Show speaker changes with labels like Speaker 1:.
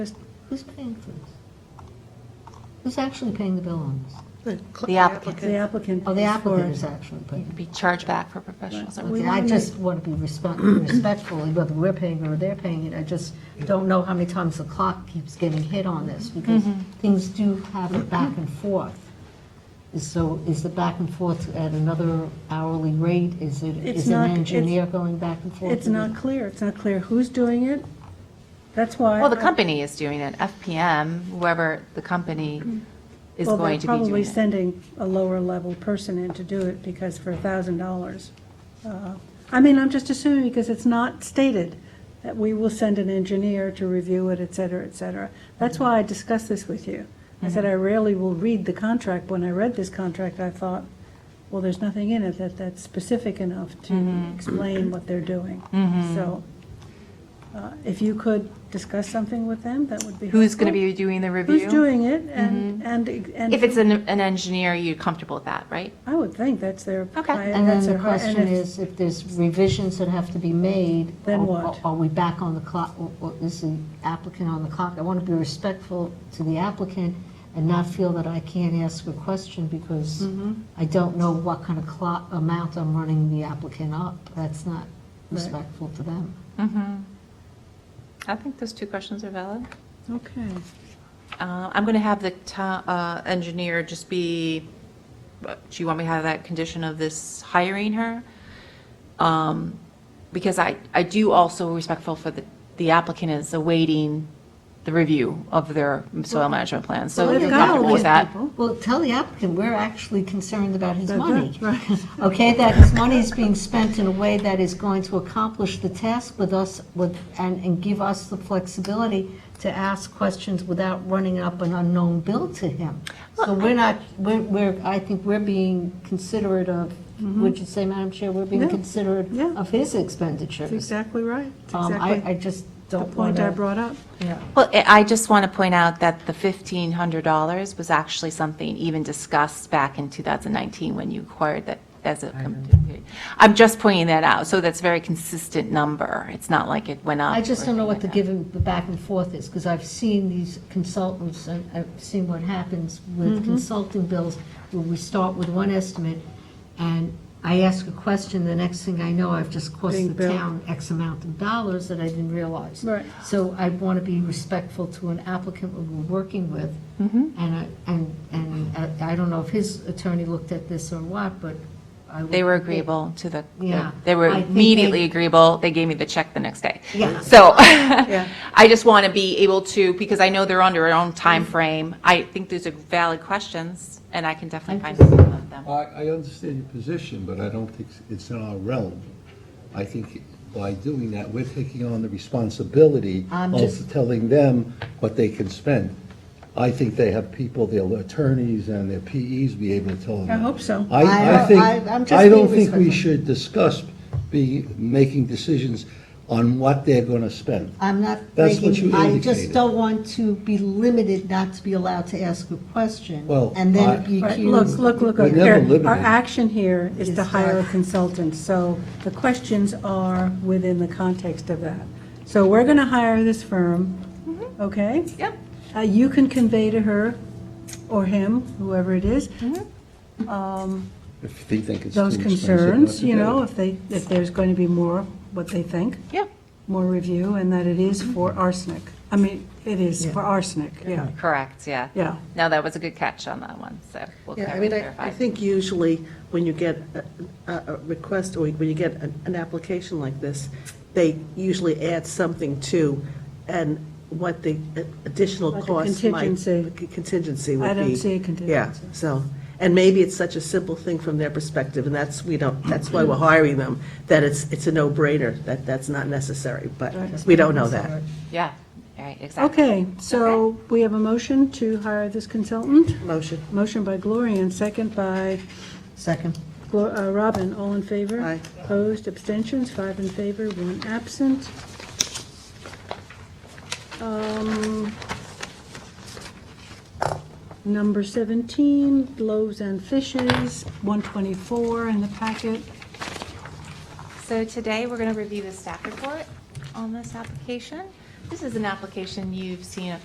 Speaker 1: Just- Who's paying for this? Who's actually paying the bill on this?
Speaker 2: The cl-
Speaker 3: The applicant.
Speaker 2: The applicant.
Speaker 1: Oh, the
Speaker 2: is
Speaker 1: applicant
Speaker 2: for-
Speaker 1: is actually paying.
Speaker 3: be charged back for professional services.
Speaker 1: Okay, I just want to be respe- respectfully, whether we're paying or they're paying it, I just don't know how many times the clock keeps getting hit on this, because things do have a back and forth. So is the back and forth at another hourly rate? Is it,
Speaker 2: It's
Speaker 1: is an
Speaker 2: not- it's-
Speaker 1: engineer going back and forth?
Speaker 2: It's not clear, it's not clear who's doing it. That's why.
Speaker 3: Well, the
Speaker 2: I-
Speaker 3: company is doing it, FPM, whoever the company is
Speaker 2: well,
Speaker 3: going to be
Speaker 2: They're probably
Speaker 3: doing it.
Speaker 2: sending a lower-level person in to do it, because for $1,000. uh, I mean, I'm just assuming, because it's not stated, that we will send an engineer to review it, et cetera, et cetera. That's
Speaker 3: Mm-hmm.
Speaker 2: why I discussed this with you. I said I rarely will read the contract. When I read this contract, I thought, well, there's nothing in it that, that's specific enough to
Speaker 3: Mm-hmm.
Speaker 2: explain what they're doing. So uh, if you could discuss something with them, that would be
Speaker 3: Who's going to
Speaker 2: helpful
Speaker 3: be doing the review?
Speaker 2: who's doing it and, and, and.
Speaker 3: Mm-hmm. If it's an, an engineer, you're comfortable with that, right?
Speaker 2: I would think that's their.
Speaker 3: Okay.
Speaker 2: I-
Speaker 1: And then
Speaker 2: that's
Speaker 1: the
Speaker 2: their hi- and
Speaker 1: question
Speaker 2: if-
Speaker 1: is, if there's revisions that have to be made.
Speaker 2: Then
Speaker 1: are-
Speaker 2: what?
Speaker 1: Are we back on the clock, or- or is the applicant on the clock? I want to be respectful to the applicant and not feel that I can't ask a question because
Speaker 2: Mm-hmm.
Speaker 1: I don't know what kind of clock, amount I'm running the applicant up. That's not respectful to them.
Speaker 3: Mm-hmm. I think those two questions are valid.
Speaker 2: Okay,
Speaker 3: Uh, I'm going to have the to- uh, engineer just be, uh, do you want me to have that condition of this hiring her? Um, Because I, I do also respectful for the, the applicant is awaiting the review of their soil management plan, so
Speaker 2: Well,
Speaker 3: you're
Speaker 2: they've got all
Speaker 3: comfortable with
Speaker 2: these
Speaker 3: that.
Speaker 2: people.
Speaker 1: Well, tell the applicant, we're actually concerned about his
Speaker 2: That's
Speaker 1: money.
Speaker 2: right,
Speaker 1: Okay, that his money is being spent in a way that is going to accomplish the task with us, with, and, and give us the flexibility to ask questions without running up an unknown bill to him. So we're not, we're, we're, I think we're being considerate of, would you say, Madam Chair, we're being
Speaker 2: Mm-hmm. Yeah,
Speaker 1: considerate
Speaker 2: yeah.
Speaker 1: of his
Speaker 2: that's
Speaker 1: expenditures.
Speaker 2: exactly right. That's
Speaker 1: Um, I, I
Speaker 2: exactly
Speaker 1: just
Speaker 2: the
Speaker 1: don't want
Speaker 2: point I
Speaker 1: to.
Speaker 2: brought up.
Speaker 3: Well, I I just want to point out that the $1,500 was actually something even discussed back in 2019 when you acquired that as a, I'm just pointing that out, so that's a very consistent number. It's not like it went up.
Speaker 1: I just
Speaker 3: or
Speaker 1: don't know
Speaker 3: anything
Speaker 1: what the
Speaker 3: like that.
Speaker 1: give and the back and forth is, because I've seen these consultants, and I've seen what happens
Speaker 3: Mm-hmm.
Speaker 1: with consulting bills, where we start with one estimate, and I ask a question, the next thing I know, I've just
Speaker 2: Being
Speaker 1: cost the
Speaker 2: billed.
Speaker 1: town X amount of dollars that I didn't realize.
Speaker 2: Right.
Speaker 1: So I want to be respectful to an applicant we we're working with,
Speaker 3: Mm-hmm.
Speaker 1: and I, and, and I I don't know if his attorney looked at this or what, but I. would
Speaker 3: They were
Speaker 1: think that-
Speaker 3: agreeable to the,
Speaker 1: Yeah.
Speaker 3: they were
Speaker 1: I think they-
Speaker 3: immediately agreeable. They gave me the check the next day.
Speaker 1: Yeah.
Speaker 3: So I just want to be able to, because I know they're under their own time frame. I think these are valid questions, and I can definitely find some of them.
Speaker 4: I, I understand your position, but I don't think it's in our realm. I think by doing that, we're taking on the responsibility
Speaker 1: I'm
Speaker 4: of
Speaker 1: just-
Speaker 4: telling them what they can spend. I think they have people, their attorneys and their PEs be able to tell them.
Speaker 2: I
Speaker 4: that.
Speaker 2: hope so.
Speaker 1: I
Speaker 4: I, I
Speaker 1: don't-
Speaker 4: think,
Speaker 1: I- I'm just
Speaker 4: I don't
Speaker 1: being
Speaker 4: think we
Speaker 1: respectful.
Speaker 4: should discuss be, making decisions on what they're gonna spend.
Speaker 1: I'm not
Speaker 4: That's what
Speaker 1: making,
Speaker 4: you
Speaker 1: I just
Speaker 4: indicated.
Speaker 1: don't want to be limited not to be allowed to ask a question.
Speaker 4: Well,
Speaker 1: And then
Speaker 4: I-
Speaker 1: be
Speaker 2: Right, Look,
Speaker 1: accused.
Speaker 2: look, look,
Speaker 4: We're
Speaker 2: look,
Speaker 4: never
Speaker 2: here,
Speaker 4: limited.
Speaker 2: our action here is
Speaker 1: Is
Speaker 2: to hire a
Speaker 1: that-
Speaker 2: consultant, so the questions are within the context of that. So we're going to hire this firm, okay?
Speaker 3: Mm-hmm. Yep.
Speaker 2: Uh, You can convey to her, or him, whoever it is,
Speaker 3: Mm-hmm.
Speaker 2: um,
Speaker 4: If they think it's too
Speaker 2: those
Speaker 4: expensive, not
Speaker 2: concerns,
Speaker 4: to
Speaker 2: you
Speaker 4: do
Speaker 2: know,
Speaker 4: it.
Speaker 2: if they, if there's going to be more, what they think.
Speaker 3: Yep.
Speaker 2: more review and that it is for arsenic. I mean, it is for arsenic, yeah,
Speaker 3: Correct, yeah.
Speaker 2: yeah.
Speaker 3: No, that was a good catch on that one, so we'll
Speaker 5: Yeah, I
Speaker 3: clar-
Speaker 5: mean, I, I
Speaker 3: clarify.
Speaker 5: think usually when you get a, a a request, or when you get an, an application like this, they usually add something to, and what the additional
Speaker 2: Like a
Speaker 5: cost might.
Speaker 2: contingency.
Speaker 5: Contingency would
Speaker 2: I
Speaker 5: be.
Speaker 2: don't see a contingency.
Speaker 5: Yeah, so, and maybe it's such a simple thing from their perspective, and that's, we don't, that's why we're hiring them, that it's, it's a no-brainer, that that's not necessary, but we don't know that.
Speaker 3: Yeah, right, exactly.
Speaker 2: Okay, so we have a motion to hire this consultant.
Speaker 5: Motion.
Speaker 2: Motion by Gloria and second by
Speaker 1: Second.
Speaker 2: Glo- uh, Robin. All in favor?
Speaker 5: Aye.
Speaker 2: Opposed, abstentions, five in favor, one absent. Um, Number 17, loaves and fishes, 124 in the packet.
Speaker 3: So today, we're going to review the staff report on this application. This is an application you've seen a